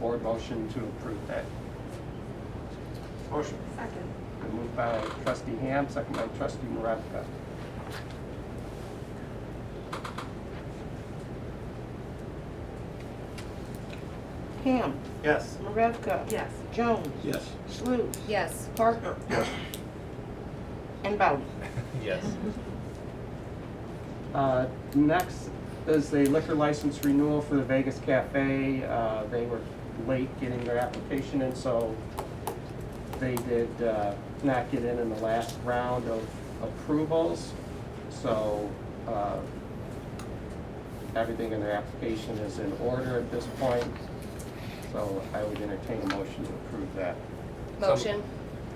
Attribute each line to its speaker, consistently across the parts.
Speaker 1: board motion to approve that.
Speaker 2: Motion.
Speaker 3: Second.
Speaker 1: Been moved by trustee Ham, second by trustee Maravka.
Speaker 4: Ham.
Speaker 2: Yes.
Speaker 4: Marevka.
Speaker 3: Yes.
Speaker 4: Jones.
Speaker 5: Yes.
Speaker 4: Sluse.
Speaker 6: Yes.
Speaker 4: Parker.
Speaker 2: Yes.
Speaker 4: And Bowden.
Speaker 5: Yes.
Speaker 1: Uh, Next is a liquor license renewal for the Vegas Cafe. Uh, They were late getting their application in, so they did uh, not get in in the last round of approvals. So uh, everything in their application is in order at this point. So I would entertain a motion to approve that.
Speaker 6: Motion.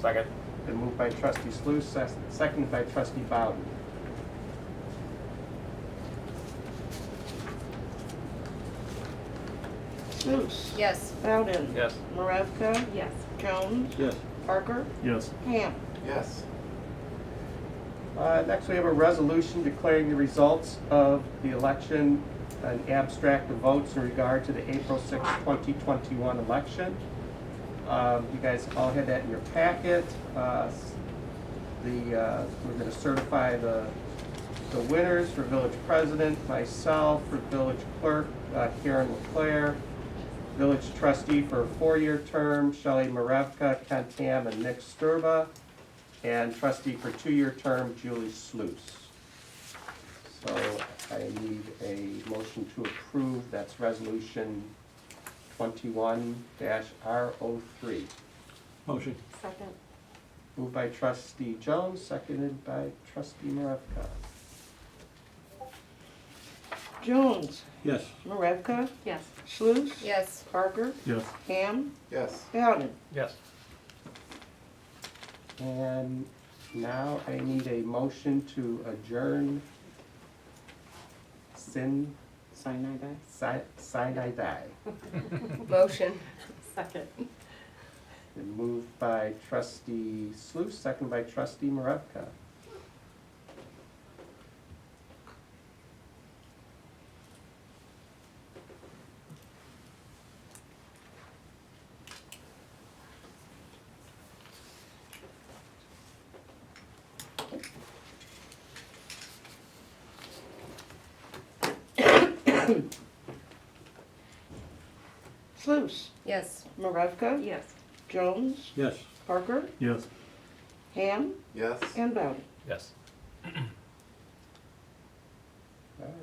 Speaker 2: Second.
Speaker 1: Been moved by trustee Sluse, ses- seconded by trustee Bowden.
Speaker 4: Sluse.
Speaker 6: Yes.
Speaker 4: Bowden.
Speaker 2: Yes.
Speaker 4: Marevka.
Speaker 3: Yes.
Speaker 4: Jones.
Speaker 5: Yes.
Speaker 4: Parker.
Speaker 5: Yes.
Speaker 4: Ham.
Speaker 2: Yes.
Speaker 1: Uh, Next, we have a resolution declaring the results of the election, an abstract of votes in regard to the April 6, 2021 election. Um, You guys all had that in your packet. Uh, s- The, uh, we're going to certify the, the winners for village president, myself, for village clerk, uh, Karen Leclerc, village trustee for a four-year term, Shelley Marevka, Ken Tam, and Nick Sturba and trustee for two-year term, Julie Sluse. So I need a motion to approve, that's resolution twenty-one R O three.
Speaker 5: Motion.
Speaker 3: Second.
Speaker 1: Moved by trustee Jones, seconded by trustee Maravka.
Speaker 4: Jones.
Speaker 5: Yes.
Speaker 4: Marevka.
Speaker 3: Yes.
Speaker 4: Sluse.
Speaker 6: Yes.
Speaker 4: Parker.
Speaker 5: Yes.
Speaker 4: Ham.
Speaker 2: Yes.
Speaker 4: Bowden.
Speaker 2: Yes.
Speaker 1: And now I need a motion to adjourn sin,
Speaker 4: Sinai Bay.
Speaker 1: si, sinai die.
Speaker 6: Motion.
Speaker 3: Second.
Speaker 1: Been moved by trustee Sluse, seconded by trustee Maravka.
Speaker 4: Sluse.
Speaker 6: Yes.
Speaker 4: Marevka.
Speaker 3: Yes.
Speaker 4: Jones.
Speaker 5: Yes.
Speaker 4: Parker.
Speaker 5: Yes.
Speaker 4: Ham.
Speaker 2: Yes.
Speaker 4: And Bowden.
Speaker 2: Yes.
Speaker 1: All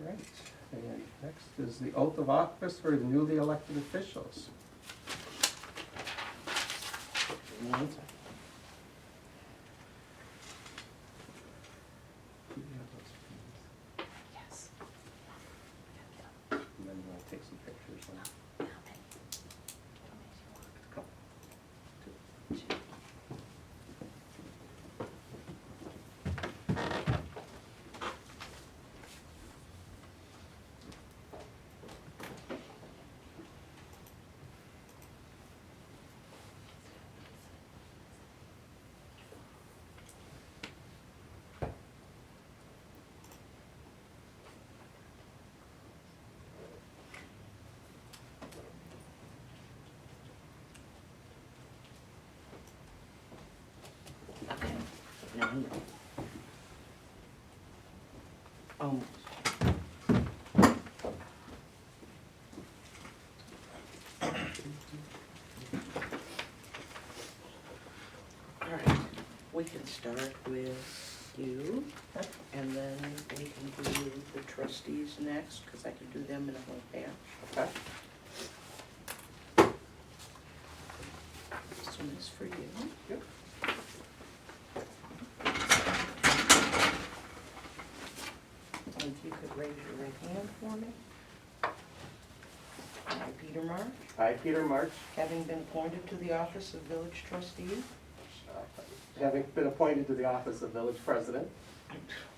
Speaker 1: right, and next is the oath of office for the newly elected officials.
Speaker 3: Yes.
Speaker 1: And then we'll take some pictures. and-
Speaker 4: Almost. All right, we can start with you, and then we can do the trustees next, because I can do them in a whole batch. This one is for you.
Speaker 1: Yep.
Speaker 4: And if you could raise your right hand for me. I, Peter Marsh,
Speaker 1: I, Peter March,
Speaker 4: having been appointed to the office of village trustee,
Speaker 1: having been appointed to the office of village president.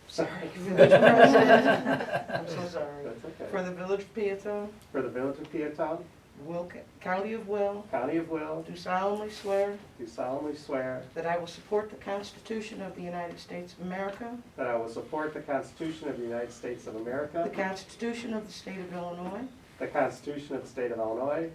Speaker 4: sorry, village president, I'm so sorry,
Speaker 1: That's
Speaker 4: for
Speaker 1: okay.
Speaker 4: the village of Peatone,
Speaker 1: For the village of Peatone,
Speaker 4: Will, County of Will,
Speaker 1: county of Will,
Speaker 4: do solemnly swear
Speaker 1: do solemnly swear
Speaker 4: that I will support the Constitution of the United States of America,
Speaker 1: that I will support the Constitution of the United States of
Speaker 4: the
Speaker 1: America,
Speaker 4: Constitution of the State of Illinois,
Speaker 1: the Constitution of the State of Illinois,